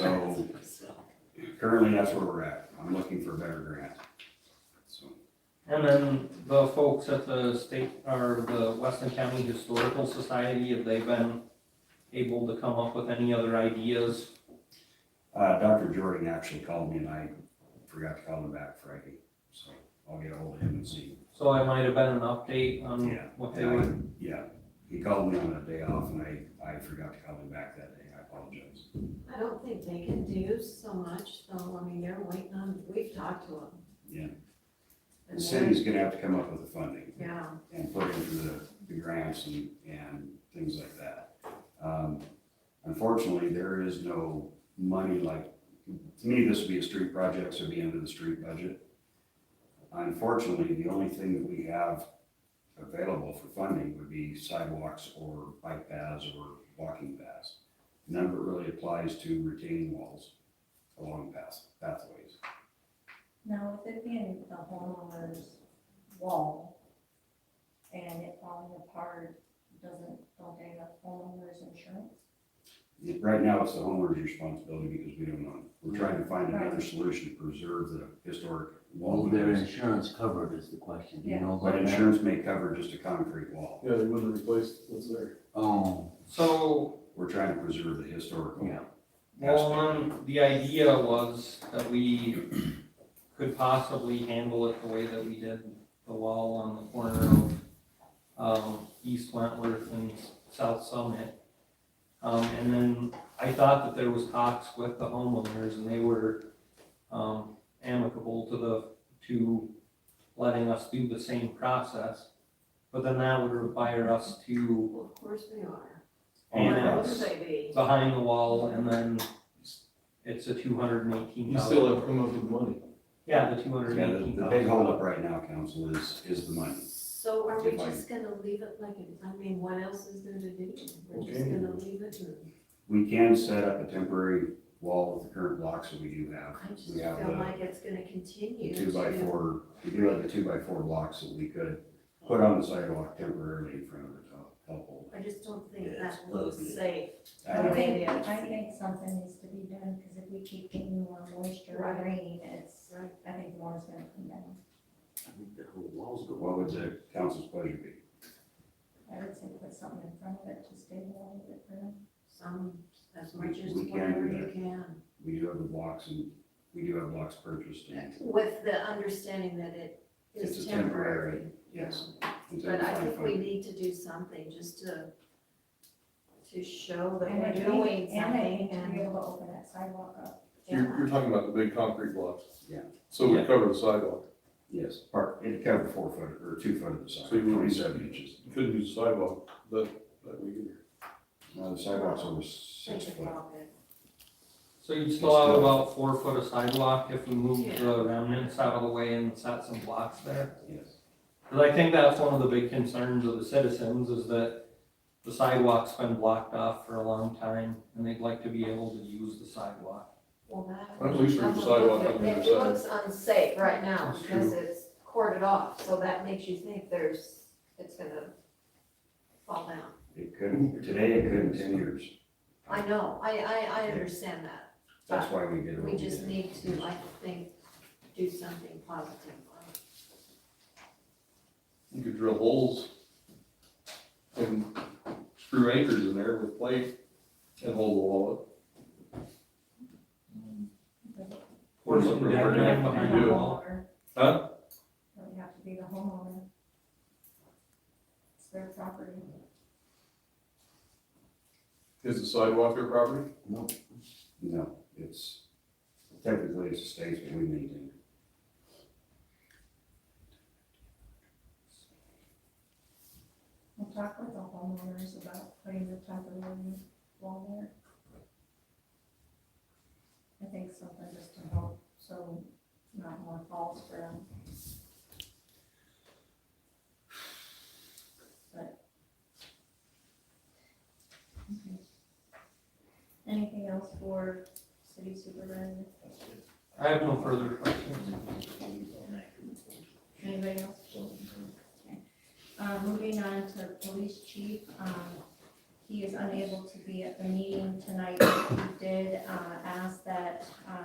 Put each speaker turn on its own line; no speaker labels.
So currently, that's where we're at. I'm looking for a better grant. So,
And then the folks at the state, or the Weston County Historical Society, have they been able to come up with any other ideas?
uh, Dr. Jordan actually called me and I forgot to call him back Friday, so I'll get ahold of him and see.
So it might have been an update on
Yeah.
what they
And
were,
I- Yeah, he called me on that day off and I, I forgot to call him back that day. I apologize.
I don't think they can do so much, though, I mean, they're waiting on, we've talked to them.
Yeah.
And
The
they're,
city's gonna have to come up with the funding
yeah,
and put in for the, the grants and, and things like that. Um, Unfortunately, there is no money like, to me, this would be a street project, so it'd be under the street budget. Unfortunately, the only thing that we have available for funding would be sidewalks or bike paths or walking paths. None of it really applies to retaining walls along paths, pathways.
Now, with it being the homeowner's wall and it falling apart, doesn't, don't they have homeowner's insurance?
Right now, it's the homeowner's responsibility because we don't own. it. We're trying to find another solution to preserve the historic
Will
wall.
their insurance covered is the question, you know?
But
about that?
insurance may cover just a concrete wall.
Yeah, they wouldn't replace what's there.
Oh,
so,
We're trying to preserve the historical.
Yeah.
well, um, the idea was that we could possibly handle it the way that we did the wall on the corner of, um, East Wentworth and South Summit. Um, and then I thought that there was talks with the homeowners and they were, um, amicable to the, to letting us do the same process. But then that would require us to
well, of course they are.
On the
Yeah.
Why would
cross.
they be?
behind the wall and then it's a two hundred and eighteen
You still
thousand.
have to come up with money.
Yeah, the two hundred
Yeah,
and
the,
eighteen
the big
thousand.
holdup right now, council, is, is the money.
So are we
If I-
just gonna leave it like, it- I mean, what else is there to do? We're just
Okay.
gonna leave it, and
We can set up a temporary wall with the current blocks that we do have.
I just
We have
feel
the
like it's gonna
the
continue
two by
to-
four, we do have the two by four blocks that we could put on the sidewalk temporarily in front of the top, top hole.
I just don't think
Yeah,
that
it's
looks
ugly.
safe.
I
I
don't-
think, I think something needs to be done, because if we keep getting more moisture
Right.
or rain, it's,
Right.
I think water's gonna come down.
I think the whole wall's going.
What would the council's pleasure be?
I would say put something in front of it to stabilize it for them.
Some, as
We-
much as
we can do
whatever you
that.
can.
We do have the blocks and, we do have blocks purchased and.
With the understanding that it
It's
is
a temporary,
temporary.
yes. until
But I
find
think we
funding.
need to do something just to, to show that
And I
we're
think-
doing
And I
something
think to be
and,
able to open that sidewalk up.
You're,
yeah,
you're talking about the big concrete blocks.
Yeah.
So we
Yeah.
cover the sidewalk.
Yes, park, it covered four foot, or two foot of the
So you
sidewalk,
would-
twenty-seven inches.
You couldn't use the sidewalk that, that week either.
Now, the sidewalks over
think
six foot.
about it.
So you'd still have about four foot of sidewalk if we moved the remnants out of the way and set some blocks there.
Yes.
Cause I think that's one of the big concerns of the citizens is that the sidewalk's been blocked off for a long time and they'd like to be able to use the sidewalk.
Well, that.
At least there's a sidewalk on the
It
other side.
looks unsafe right now
That's
because it's corded off, so that makes you think there's, it's gonna fall down.
It couldn't, today it couldn't ten years.
I know, I, I, I understand that.
That's why we did it.
We just need to, I think, do something positive on it.
You could drill holes and screw anchors in there with plate and hold the wall
Or some
We're
dead
gonna
man
have to
behind
do
the
it.
wall.
up. Huh?
It would have to be the homeowner. It's their property.
Is the sidewalk their property?
No, it's, technically it's a state, but we maintain it.
We'll talk with the homeowners about putting the temporary wall there. I think something just to help, so not more falls for them. But. Okay. Anything else for city supervisor?
I have no further questions.
Anybody else? Okay. Uh, moving on to police chief, um, He is unable to be at the meeting tonight. He did, uh, ask that, uh,